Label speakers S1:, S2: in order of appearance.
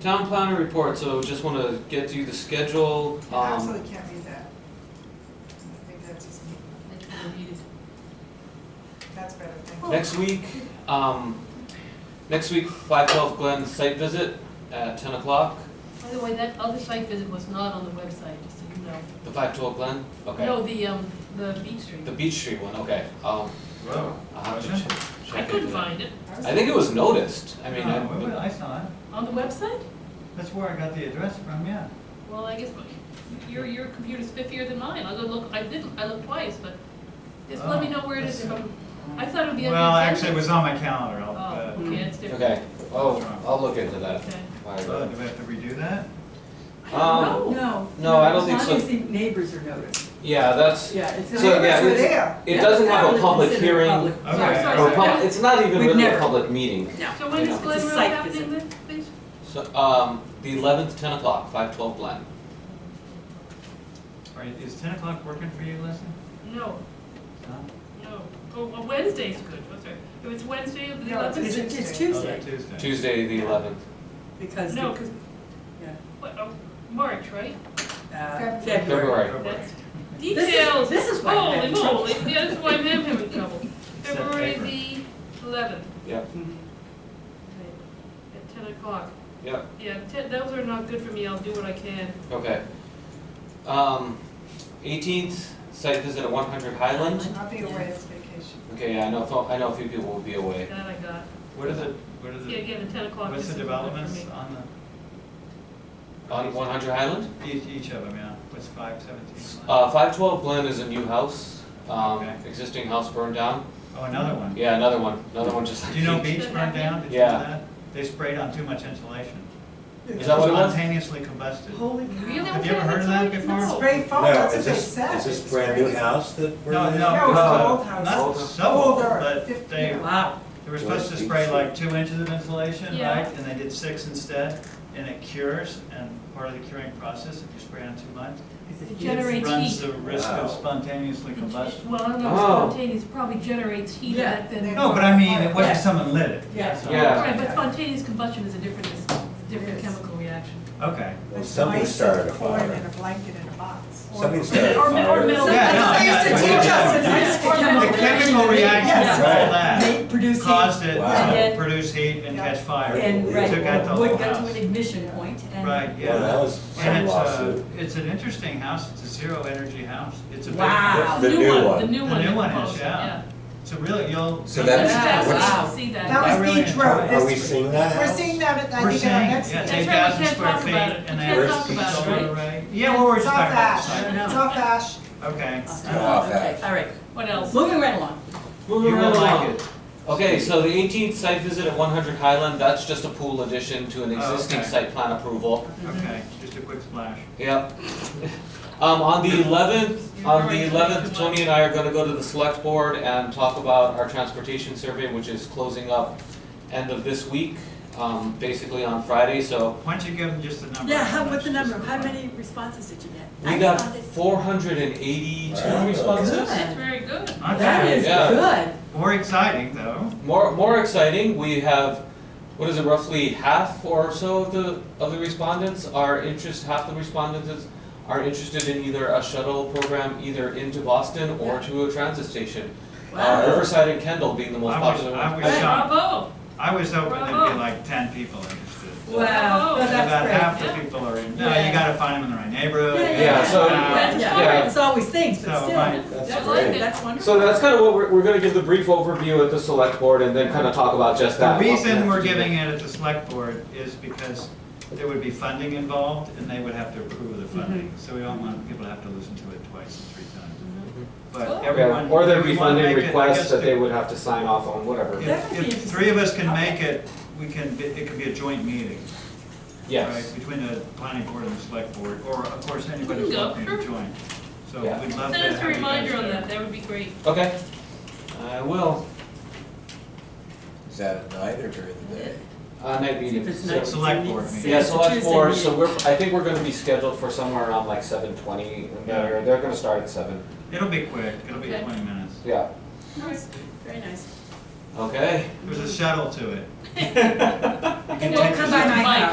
S1: Town planner report, so just wanna get you the schedule,
S2: I
S1: um,
S2: absolutely can't read that. I think that's just,
S3: It can be repeated.
S2: that's better, thank you.
S1: next week, um, next week, five twelve Glen site visit at ten o'clock,
S3: By the way, that other site visit was not on the website, just so you know.
S1: the five twelve Glen, okay.
S3: No, the, um, the Beach Street.
S1: The Beach Street one, okay, um,
S4: Wow.
S1: I'll have to
S4: Wasn't
S1: check, check
S3: I couldn't
S1: into that.
S3: find it.
S1: I think it was noticed, I mean,
S4: No, wait a minute,
S1: I,
S4: I saw it.
S3: On the website?
S4: That's where I got the address from, yeah.
S3: Well, I guess my- your, your computer's spiffier than mine. I'll go look, I did, I looked twice, but just let me
S1: Oh.
S3: know where it is. if I'm- I thought it would be on the.
S4: Well,
S3: agenda.
S4: actually, it was on my calendar. I'll,
S3: Oh,
S4: uh,
S3: okay, that's different.
S1: okay, oh, I'll look into that.
S3: Okay.
S1: Alright.
S4: so do we have to redo that?
S1: Um,
S3: No.
S5: No.
S1: No, I don't think
S5: As
S1: so.
S5: long as the neighbors are noticed,
S1: yeah, that's,
S5: yeah, it's.
S1: So,
S5: not-
S1: yeah,
S2: Neighbors were
S1: it's-
S2: there.
S1: it
S5: Yeah,
S1: doesn't
S5: it's
S1: have
S5: not
S1: a public
S5: considered
S1: hearing,
S5: public.
S4: Okay.
S3: Sorry, sorry,
S1: or a
S3: sorry.
S1: pub- it's not even
S5: We've
S1: really a
S5: never-
S1: public meeting,
S5: No.
S3: So when is
S1: It's a
S3: Glen Road
S5: site
S3: happening then, please?
S1: so, um, the eleventh, ten o'clock, five twelve Glen.
S4: Are you- Is ten o'clock working for you, Leslie?
S3: No,
S4: No?
S3: no. Oh, well, Wednesday's good, was it? If it's Wednesday, the
S2: No, it's-
S5: It's, it's
S3: eleventh.
S4: Oh, they're
S5: Tuesday,
S4: Tuesday.
S1: Tuesday, the eleventh.
S5: because,
S3: No,
S5: the-
S3: because,
S5: yeah,
S3: what, oh, March, right?
S5: uh, February.
S1: February.
S3: That's
S5: is-
S3: details.
S5: this is why I'm
S3: Holy
S5: having trouble.
S3: moly, yeah, this is why I'm having trouble.
S4: Set
S3: February
S4: paper.
S3: the eleventh,
S1: Yep,
S5: Mhm.
S3: at ten o'clock.
S1: yep,
S3: Yeah, ten, those are not good for me, I'll do what I can.
S1: okay. Um, eighteenth, site visit at one hundred Highland.
S2: I'll be away, it's vacation.
S1: Okay, yeah, I know, fo- I know a few people will be away.
S3: That I got.
S4: What are the, what are
S3: Yeah,
S4: the,
S3: again, at ten o'clock.
S4: what's
S3: this
S4: the
S3: is not good for
S4: developments
S3: me.
S4: on the?
S1: On one hundred Highland?
S4: Each, each of them, yeah. What's five seventeen?
S1: Uh, five twelve Glen is a new house, um,
S4: Okay.
S1: existing house burned down.
S4: Oh, another one.
S1: Yeah, another one, another one just.
S4: Do you know
S1: like-
S4: beach burned down? Did you
S1: Yeah.
S4: know that? They sprayed on too much insulation.
S1: Is that what it was?
S4: Spontaneously combusted.
S2: Holy cow.
S3: Really?
S4: Have you ever heard of that before?
S3: No.
S2: Spray foam,
S6: No,
S2: Oh, that's
S6: is
S2: what they
S6: this,
S2: said.
S6: is this
S2: It's
S6: brand new
S2: crazy.
S6: house that we're
S4: No,
S6: in?
S4: no,
S2: No, it's
S4: uh,
S2: an old house.
S4: not
S1: Older.
S4: so old,
S2: Older,
S4: but
S2: fifty.
S4: they,
S5: Wow,
S4: they were supposed to spray like two inches of insulation,
S3: Yeah.
S4: right? And they did six instead, and it cures, and part of the curing process, if you spray on too much,
S5: Is
S3: It
S5: it
S3: generates-
S5: generates.
S4: it runs the risk
S6: Wow.
S4: of spontaneously combustion.
S3: Well, I don't know,
S1: Oh.
S3: spontaneous probably generates heat
S5: Yeah.
S3: and then.
S4: No, but I mean, it
S5: Yeah.
S4: wasn't someone lit it.
S5: Yeah.
S4: so-
S1: Yeah.
S3: Right, but spontaneous combustion is a different, is a
S2: Yes.
S3: different chemical reaction.
S4: Okay.
S6: Well,
S2: It's
S6: somebody
S2: nice
S6: started
S2: and
S6: a
S2: corn
S6: fire.
S2: and a blanket in a box.
S6: Somebody started
S3: Or
S6: a
S3: mi- or middle-
S6: fire.
S4: Yeah, no,
S2: That's what they used to
S4: yeah,
S2: teach us in
S4: yeah.
S2: high school.
S3: Or middle-
S4: The chemical reaction from all that
S5: They produce heat
S4: caused it
S6: Wow.
S4: to produce heat and catch fire. It
S5: and,
S6: They
S4: took out
S5: right,
S4: the whole
S5: wood got to
S4: house.
S5: an ignition point and.
S4: Right, yeah.
S6: Well, that was some
S4: And
S2: uh,
S4: it's a,
S6: lawsuit.
S4: it's an interesting house, it's a zero energy house, it's a big.
S5: Wow.
S6: The new one.
S3: The new
S4: The
S3: one.
S4: new one is,
S3: proposed,
S4: yeah. It's a real, you'll.
S6: So that's-
S3: That's
S5: what's-
S3: fascinating to see that.
S4: I
S2: That was
S4: really
S2: Beach
S4: enjoy
S2: Road
S4: it.
S6: Are we
S2: this week.
S6: seeing that
S2: We're
S6: house?
S2: seeing that, I
S4: We're
S2: think, in our
S4: saying,
S2: next
S4: yeah,
S3: That's
S4: it's eight
S2: meeting.
S3: right, we
S4: thousand
S3: can't
S4: square
S3: talk
S4: feet
S3: about it.
S4: and
S3: We
S4: they
S3: can't
S4: have
S6: talk
S4: a
S3: about it,
S4: solar
S3: right?
S4: array. Yeah, well, we're
S2: It's
S4: just
S2: off
S4: talking about the
S2: ash,
S4: site
S2: it's
S4: now.
S2: off ash.
S4: Okay.
S5: Okay,
S6: off
S5: Uh, okay,
S6: that.
S5: all right,
S3: What else?
S5: moving right along.
S4: You
S1: Moving
S4: will
S1: right
S4: like
S1: along.
S4: it.
S1: Okay, so the eighteenth site visit at one hundred Highland, that's just a pool addition to an
S4: Oh,
S1: existing
S4: okay.
S1: site plan approval.
S4: Okay, just a quick splash.
S1: Yep. Um, on the eleventh,
S3: You're
S1: on the
S3: right,
S1: eleventh,
S3: too
S1: Tony
S3: much.
S1: and I are gonna go to the select board and talk about our transportation survey, which is closing up end of this week, um, basically on Friday, so
S4: Why don't you give them just the number?
S5: Yeah, how,
S4: much
S5: what's the
S4: this
S5: number,
S4: is
S5: how
S4: worth?
S5: many responses did you get?
S1: we
S5: I
S1: got
S5: saw this-
S1: four hundred and eighty-two
S6: Wow.
S1: responses.
S5: Good.
S3: That's very good.
S5: That
S4: Okay,
S5: is
S1: Yeah.
S5: good,
S4: more exciting though.
S1: More, more exciting, we have, what is it, roughly half or so of the, of the respondents are interest, half the respondents is- are interested in either a shuttle program either into Boston or to a transit station. Uh,
S5: wow,
S1: Riverside and Kendall being the most
S4: I was-
S1: popular
S4: I
S1: ones.
S4: was-
S3: Bravo.
S4: I was hoping there'd
S3: Bravo.
S4: be like ten people interested.
S5: wow,
S3: Oh,
S5: well,
S4: About half
S5: that's great.
S4: the
S3: Yeah.
S4: people are in, no, you
S5: Yeah.
S4: gotta find them in the right neighborhood.
S5: Yeah,
S1: yeah, yeah. so-
S4: Uh,
S5: That's
S3: Yeah.
S5: fine, it's always things, but
S4: So,
S5: still,
S4: right.
S5: that's
S6: That's
S3: That's like
S6: great.
S3: it.
S5: wonderful.
S1: So that's kind of what we're, we're gonna give the brief overview at the select board and then kind of talk about just
S4: The
S1: that.
S4: reason we're giving it at the select board is because there would be funding involved, and they would have to approve of the
S3: Mm-hmm.
S4: funding. So we don't want people to have to listen to it twice and three times. But
S3: Mm-hmm. Okay.
S1: Yeah,
S4: everyone.
S1: Or there'd
S4: if
S1: be
S4: we wanna
S1: funding
S4: make it, I
S1: requests
S4: guess
S1: that
S4: the-
S1: they would have to sign off on, whatever.
S5: That would
S4: If,
S5: be
S4: if
S5: interesting.
S4: three of us can make it, we can, be- it could be a joint meeting.
S1: Yes,
S4: right, Between the planning board and the select board, or of course,
S3: We
S4: anybody's
S3: can go,
S4: welcome to
S3: sure.
S4: join. So
S1: Yeah.
S4: we'd love to have you guys
S3: Send us a reminder on
S4: there.
S3: that, that would be great.
S1: okay. I will,
S6: Is that at night or during the day?
S1: uh, night
S5: See
S1: meeting.
S5: if it's
S1: So-
S5: next
S4: Select
S5: meeting.
S4: board
S5: See if
S4: meeting.
S1: Yeah,
S5: it's a
S1: so that's
S5: Tuesday
S1: four,
S5: meeting.
S1: so we're, I think we're gonna be scheduled for somewhere around like seven twenty, they're, they're gonna start at seven,
S4: It'll be quick, it'll be
S3: Okay.
S4: twenty minutes.
S1: yeah,
S5: Nice, very nice.
S1: okay.
S4: There's a shuttle to it.
S5: And don't come by my
S3: Mike.